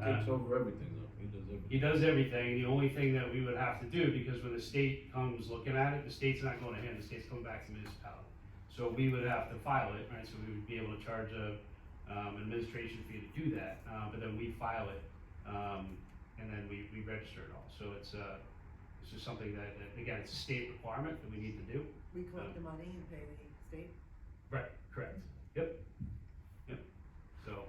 takes over everything though, he does everything. He does everything, the only thing that we would have to do, because when the state comes looking at it, the state's not going to him, the state's coming back to the municipality. So we would have to file it, right, so we would be able to charge a, um, administration fee to do that, uh, but then we file it, um, and then we, we register it all, so it's, uh, it's just something that, that, again, it's a state requirement that we need to do. We collect the money and pay the state. Right. Correct, yep, yep, so,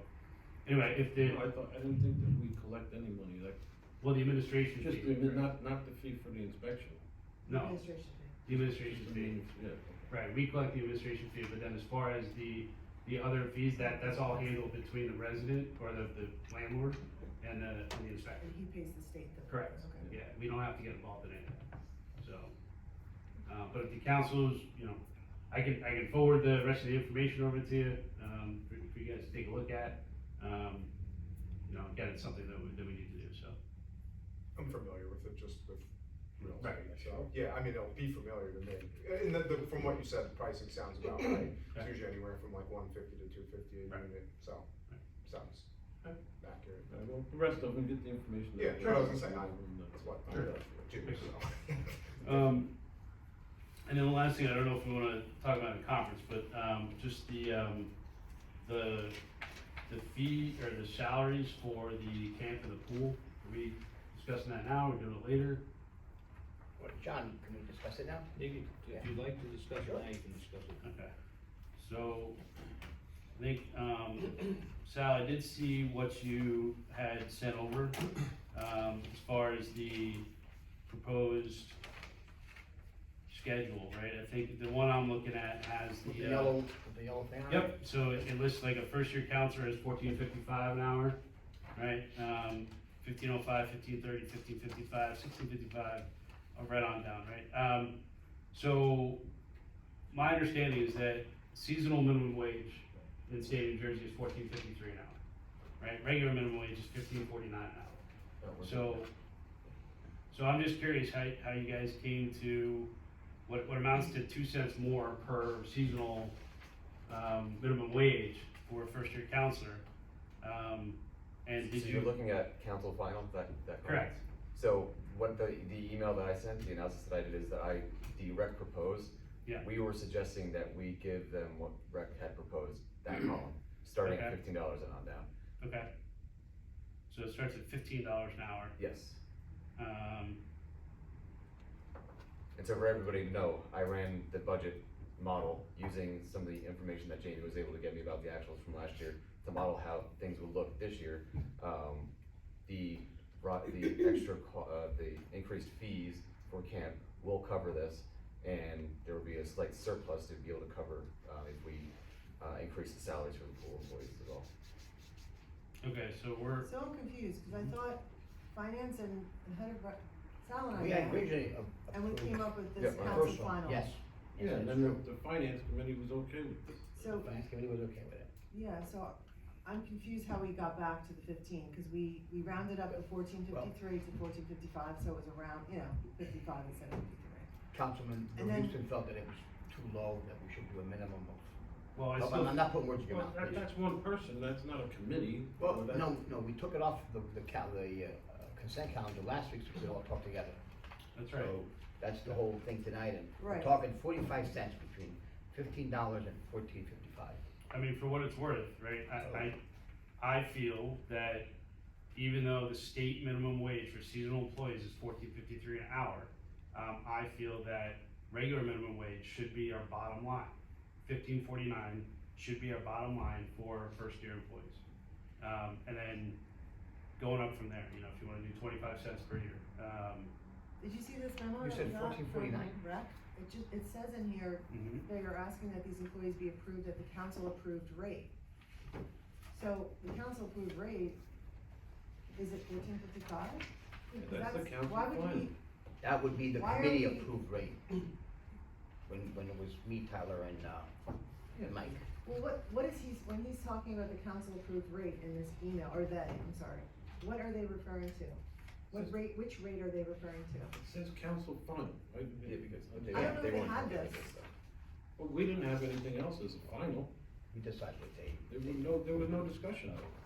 anyway, if the, I thought, I didn't think that we collect any money, like, well, the administration just, fee, the- not, not the fee for the inspection. no, Administration fee. the administration I fee. mean, Yeah, Right, we collect the administration fee, but then as far as the, the other fees, that, that's all handled between the resident or the, the landlord and the, and the inspector. And he pays the state though. Correct. Okay. Yeah, we don't have to get involved in any of that, so. Uh, but if the council's, you know, I can, I can forward the rest of the information over to you, um, for, for you guys to take a look at. Um, you know, again, it's something that we, that we need to do, so. I'm familiar with it, just with real Right. estate, so, yeah, I mean, it'll be familiar to me. And the, the, from what you said, the pricing sounds about right, it's Right. usually anywhere from like one fifty to two fifty a Right. unit, so, Right. sounds Right. accurate, okay. Alright, well, the rest of them, get the information. Yeah, that- sure, I was gonna say, I- And, uh, that's what I Sure. do, so. Um, and then the last thing, I don't know if we wanna talk about in the conference, but, um, just the, um, the, the fee or the salaries for the camp and the pool. Are we discussing that now, or doing it later? Well, John, can we discuss it now? You can- If you'd like to discuss it now, you can discuss it. Okay, so, I think, um, Sal, I did see what you had sent over, um, as far as the proposed schedule, right? I think the one I'm looking at has With the. the uh, yellow, with the yellow thing on it? Yep, so it it lists like a first year counselor is fourteen fifty-five an hour, right? Um, fifteen oh five, fifteen thirty, fifteen fifty-five, sixteen fifty-five, uh, right on down, right? Um, so my understanding is that seasonal minimum wage in the state of New Jersey is fourteen fifty-three an hour, right? Regular minimum wage is fifteen forty-nine an hour. So, so I'm just curious how, how you guys came to what, what amounts to two cents more per seasonal, um, minimum wage for a first year counselor. Um, and did So you're you, looking at council final, is that, that correct, So what the, the email that I sent, the analysis that I did is that I, the rec proposed. Yeah. We were suggesting that we give them what rec had proposed, that column, starting at Okay. fifteen dollars and on down, okay. So it starts at fifteen dollars an hour, yes. um, And so for everybody to know, I ran the budget model using some of the information that Jamie was able to get me about the actuals from last year to model how things would look this year. Um, the, ro- the extra, co- uh, the increased fees for camp will cover this. And there will be a slight surplus to be able to cover, uh, if we, uh, increase the salaries for the pool employees as well. okay, so we're, So I'm confused, cause Mm-hmm. I thought finance and, and head of, rec- Sal and I. We met, had originally. a- And we came up with this Yeah, my council first one. final. Yes. Yeah, Yes, and that's then true. the, the finance committee was okay with it. The So, finance committee was okay with it. yeah, so I'm confused how we got back to the fifteen, cause we, we rounded up the fourteen fifty-three to fourteen fifty-five, so it was around, you know, fifty-five instead of fifty-three. Councilman And then- Houston felt that it was too low, that we should do a minimum well, I of, I'm- still, I'm not putting words in your Well, mouth. that, please. that's one person, that's not a committee. Well, That- no, no, we took it off the, the cal, the uh, consent calendar last week, so we all talked together. that's Oh. right, So that's the whole thing tonight, and we're Right. talking forty-five cents between fifteen dollars and fourteen fifty-five. I mean, for what it's worth, right, I, I, I feel that even though the state minimum wage for seasonal employees is fourteen fifty-three an hour, um, I feel that regular minimum wage should be our bottom line. Fifteen forty-nine should be our bottom line for first-year employees. Um, and then going up from there, you know, if you wanna do twenty-five cents per year, um, Did you see this memo? You that said we got from 1449? Rec, it just, it says in here, mhm. they are asking that these employees be approved at the council approved rate. So the council approved rate, is it fourteen fifty-five? Yeah, That's the council Why would final. we, That would be the Why are committee we- approved rate. When, when it was me, Tyler, and, uh, and Mike. well, what, what is he, when he's talking about the council approved rate in this email, or they, I'm sorry, what are they referring to? What Says- rate, which rate are they referring to? It says council final, right? Yeah, because they, I don't know if they they won't had look at this. stuff. Well, we didn't have anything else as a final, We decided to take. there was no, there was no discussion of it.